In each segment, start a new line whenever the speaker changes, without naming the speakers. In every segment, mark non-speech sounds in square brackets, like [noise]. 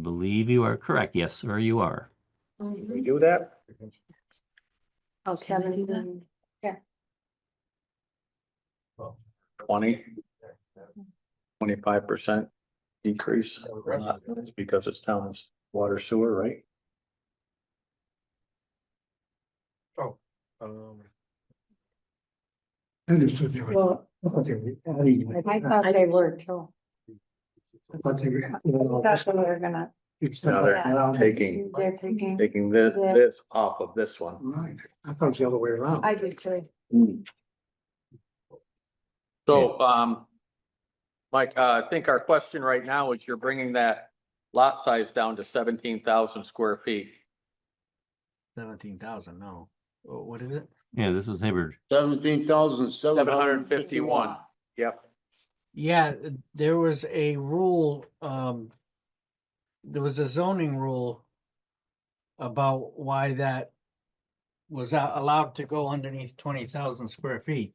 believe you are correct. Yes, sir, you are.
Can
Mm-hmm.
We do that?
Oh,
Kevin,
Kevin,
then-
Twenty? Twenty-five percent decrease? It's because it's town's water sewer, right?
Um,
I Understood they were,
Well,
I thought they were adding,
I
I
thought they were too.
thought they were. you know,
That's what we were gonna,
it's
No,
like
they're
around-
Um,
taking,
they're taking.
taking this, this off of this one.
Right, I thought it was the other way around.
I did too.
So, um, Mike, uh, I think our question right now is you're bringing that lot size down to seventeen thousand square feet.
seventeen thousand, no. Oh, What is it?
Yeah, this is Hibbard.
Seventeen thousand seven hundred
751.
and fifty-one.
Yep.
Yeah, uh, there was a rule, um. There was a zoning rule. About why that. Was a- allowed to go underneath twenty thousand square feet.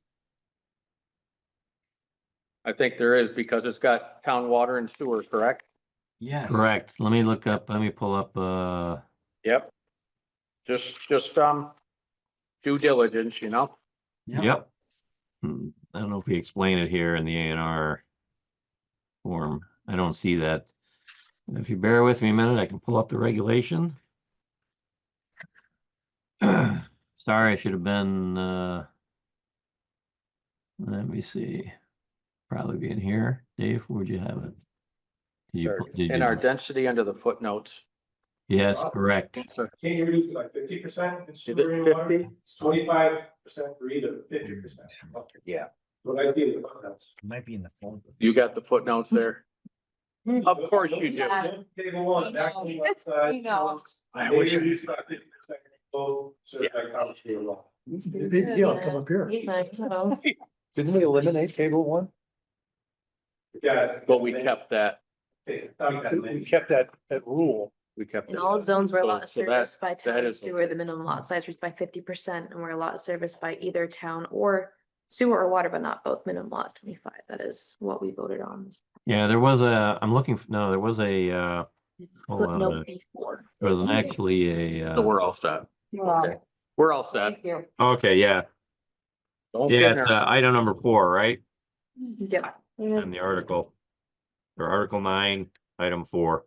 I think there is because it's got town water and sewer, correct?
Yes.
Correct. Let me look up, let me pull up, uh,
Yep. Just, just, um, due diligence, you know?
Yep.
yep. Hmm, I don't know if we explain it here in the A and R form. I don't see that. If you bear with me a minute, I can pull up the regulation. [clears throat] Sorry, I should have been, uh, let me see. Probably be in here. Dave, where'd you have it? Did you
Sure.
pu- did
In
you-
our density under the footnotes.
Yes, correct.
Sir.
Can you reduce it like fifty percent in
Is
sewer and
it
water?
fifty?
Twenty-five percent for either, fifty percent.
Yeah.
What I did with that.
Might be in the folder.
You got the footnotes there? Of course you do.
Table one, back on the left side.
You know.
I
They
wish-
reduced by fifty percent, so, so
Yeah.
like, how much do you want?
Big deal, come up here.
Didn't we eliminate table one?
Yeah.
But we kept that,
Okay, Um, I got it.
kept that, that rule. We kept.
In
it.
all zones where a lot of
So- so that-
service by town and
is
sewer, the minimum lot size was by fifty percent, and where a lot of service by either town or sewer or water, but not both, minimum lot twenty-five, that is what we voted on.
Yeah, there was a, I'm looking, f- no, there was a, uh, hold on,
Footnote
uh,
before.
there was an actually a,
So
uh,
we're all set.
Well,
We're all set.
thank you.
okay, yeah.
Don't
Yeah,
get
it's
ner-
uh, item number four, right?
Yeah.
In the article. Or article nine, item four.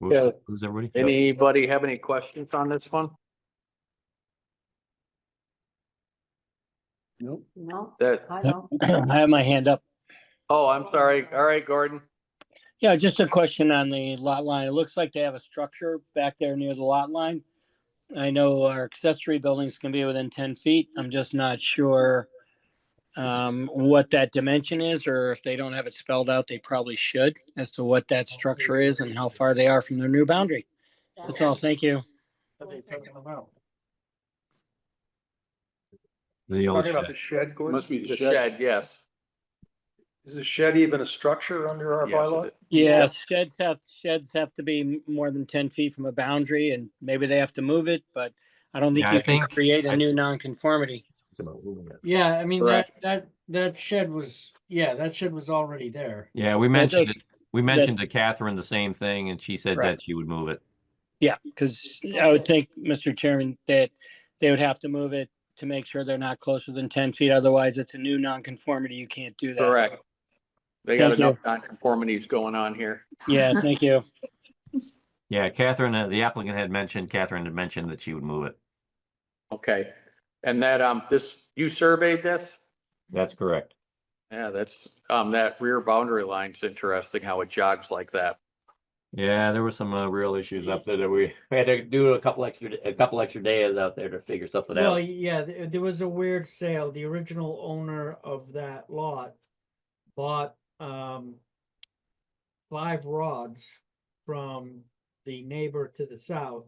Who-
Yeah.
Who's everybody? Yep.
Anybody have any questions on this one?
No,
That,
I don't.
I have my hand up.
oh, I'm sorry. All right, Gordon.
Yeah, just a question on the lot line. It looks like they have a structure back there near the lot line. I know our accessory buildings can be within ten feet. I'm just not sure um, what that dimension is, or if they don't have it spelled out, they probably should as to what that structure is and how far they are from their new boundary. That's all. Thank you.
What they taking them out?
The old
Talking about the
shed.
shed, Gordon,
Must be the shed, yes.
is the shed even a structure under our
Yes, it
bylaw?
is.
Yes, sheds have, sheds have to be m- more than ten feet from a boundary and maybe they have to move it, but I don't think
Yeah, I
you can
think-
create
I-
a new nonconformity.
Yeah, I mean, that,
Correct.
that, that shed was, yeah, that shed was already there.
Yeah, we mentioned,
does-
it. we mentioned to Catherine the same thing and she said
Correct.
that she would move it.
Yeah, because I would think, Mr. Chairman, that they would have to move it to make sure they're not closer than ten feet. Otherwise, it's a new nonconformity. You can't do that.
Correct. They got
Thank you.
enough nonconformities going on here.
[laughs]
Yeah, thank you.
Yeah, Catherine, uh, the applicant had mentioned, Catherine had mentioned that she would move it.
Okay, and that, um, this, you surveyed this?
That's correct.
Yeah, that's, um, that rear boundary line's interesting, how it jogs like that.
Yeah, there were some, uh, real issues up there that we, we had to do a couple extra, a couple extra days out there to figure something
Well,
out.
yeah, th- there was a weird sale. The original owner of that lot bought um five rods from the neighbor to the south.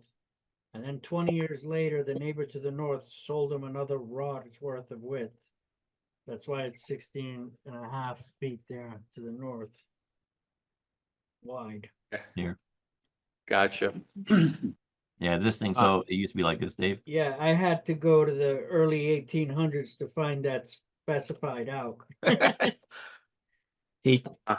And then twenty years later, the neighbor to the north sold him another rod's worth of width. That's why it's 16 and a half feet there to the north. Wide.
Gotcha.
Yeah, this thing, so it used to be like this, Dave.
Yeah, I had to go to the early eighteen hundreds to find that specified out.
He